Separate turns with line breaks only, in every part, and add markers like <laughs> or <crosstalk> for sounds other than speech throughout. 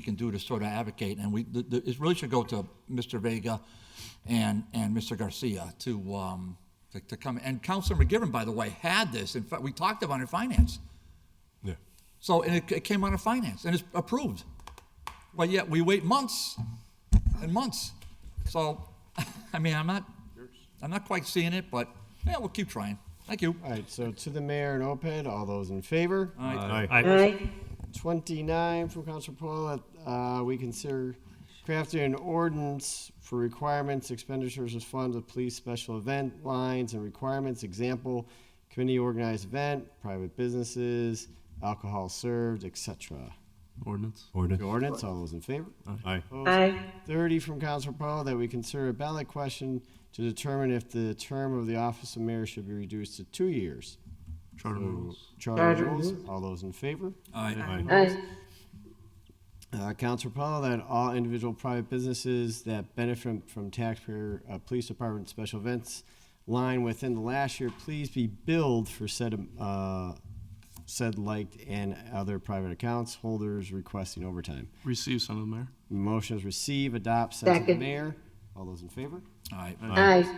we can do to sort of advocate, and we, the, the, it really should go to Mr. Vega and, and Mr. Garcia to, um, to, to come, and Councilor McGivern, by the way, had this, in fact, we talked about it in finance.
Yeah.
So, and it, it came out of finance, and it's approved. But yet, we wait months and months. So, <laughs> I mean, I'm not, I'm not quite seeing it, but, yeah, we'll keep trying. Thank you.
All right, so to the mayor and OPED, all those in favor?
Aye.
29 from Council Paul, uh, we consider crafting an ordinance for requirements, expenditures of funds of police special event lines and requirements, example, community organized event, private businesses, alcohol served, etc.
Ordinance.
The
Ordinance.
ordinance, all those in favor?
Aye.
Aye.
30 from Council Paul, that we consider a ballot question to determine if the term of the office of mayor should be reduced to two years.
Charter rules.
Charter rules, all those in favor?
All right.
Aye.
Uh, Councilor Paul, that all individual private businesses that benefit from taxpayer, uh, police department special events line within the last year, please be billed for said, um, uh, said liked and other private accounts holders requesting overtime.
Receive some of the mayor.
Motion is receive, adopt, send to the
Second.
mayor. All those in favor?
All right.
Aye.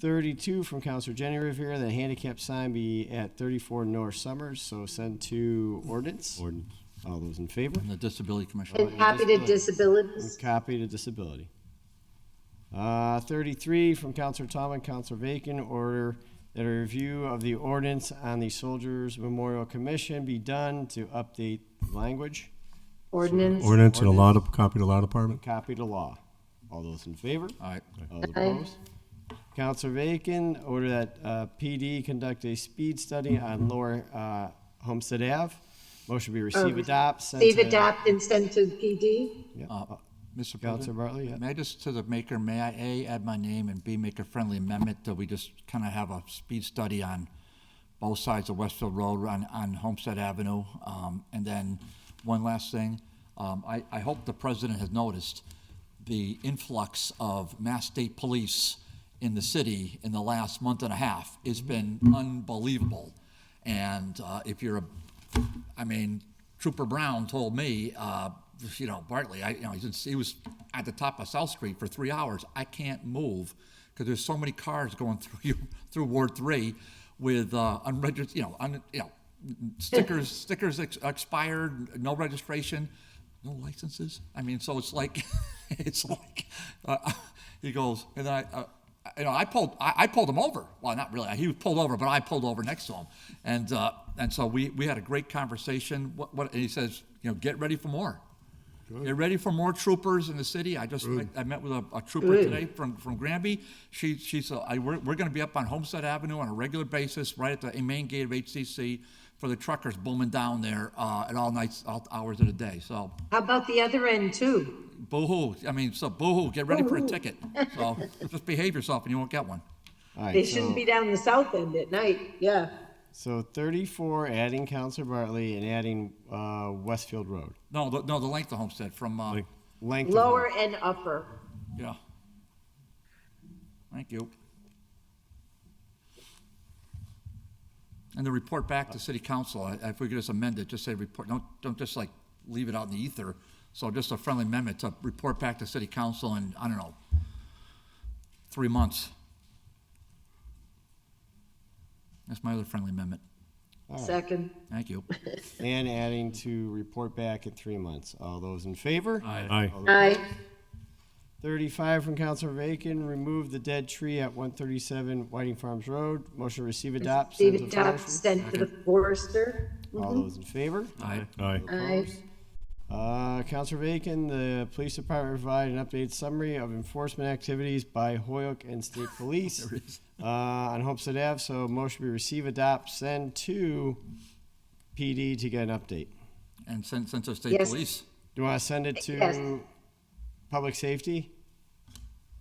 32 from Counselor Jenny Rivera, that handicap sign be at 34 North Summers, so send to ordinance.
Ordinance.
All those in favor?
And the Disability Commission.
And copy to disabilities.
Copy to disability. Uh, Thirty-three from Counselor Tom and Counselor Vacan, order that a review of the ordinance on the Soldiers Memorial Commission be done to update language,
Ordinance.
Ordinance and a law, dep- copy to law department.
copy to law. All those in favor?
All right.
All opposed? Counselor Vacan, order that uh, PD conduct a speed study on Lower uh, Homestead Ave. Motion be receive, adopt, send to.
Leave Um, adopt and send to PD.
Yeah.
Uh, Mr.
Counselor
President,
Bartley, yeah.
may I just, to the maker, may I, A, add my name, and B, make a friendly amendment that we just kind of have a speed study on both sides of Westfield Road, on, on Homestead Avenue? Um, And then, one last thing, um, I, I hope the president has noticed the influx of Mass State Police in the city in the last month and a half. It's been unbelievable. And uh, if you're a, I mean, Trooper Brown told me, uh, you know, Bartley, I, you know, he's in- he was at the top of South Street for three hours. I can't move because there's so many cars going <laughs> through you, through Ward Three with uh, unregistered, you know, un, you know, stickers stickers ex- expired, no registration, no licenses. I mean, so it's like, <laughs> it's like, uh, he goes, and I. Uh, you know, I pulled, I, I pulled him over. Well, not really. He was pulled over, but I pulled over next to him, and uh, and so we we had a great conversation. What, what and he says, you know, get ready for more. Get ready for more troopers in the city. I just I, I met with a, a trooper today from from Granby. She she's uh, I, we're we're going to be up on Homestead Avenue on a regular basis, right at the main gate of HCC for the truckers booming down there uh, at all nights, all hours of the day. So
How about the other end too?
boo-hoo. I mean, so boo-hoo. Get ready for a ticket. So just behave yourself, and you won't get one.
All right,
They
so-
shouldn't be down the south end at night. Yeah.
So 34, adding Counselor Bartley and adding uh, Westfield Road.
No, the, no, the length of Homestead from, uh,
Length.
Length of
Lower
road.
and upper.
yeah. Thank you. And the report back to city council, I- if we could just amend it, just say report, don't, don't just like leave it out in the ether. So just a friendly amendment to report back to city council in, I don't know, three months. That's my other friendly amendment.
Second.
Thank you.
And adding to report back in three months. All those in favor?
Aye.
Aye.
35 from Counselor Bacon, remove the dead tree at 137 Whiting Farms Road. Motion to receive, adopt, send
Leave
to
adopt,
forestry.
send to the forester.
All those in favor?
Aye.
Aye.
Aye.
Uh, Counselor Bacon, the police department provide an updated summary of enforcement activities by Hoyok and State Police uh, on Homestead Ave. So motion be receive, adopt, send to PD to get an update.
And since, since the state
Yes.
police,
Do you want to send it to
Yes.
public safety?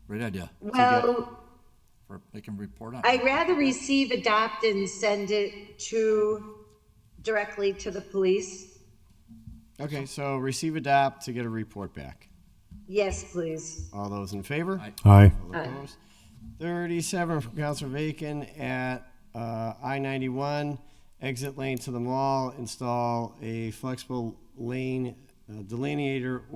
great idea,
Well,
for, they can report on. it.
I'd rather receive, adopt, and send it to, directly to the police.
Okay, so receive, adopt to get a report back.
Yes, please.
All those in favor?
Aye.
Aye.
All opposed? Thirty-seven from Counselor Bacon at uh, I ninety-one, exit lane to the mall, install a flexible lane uh, delineator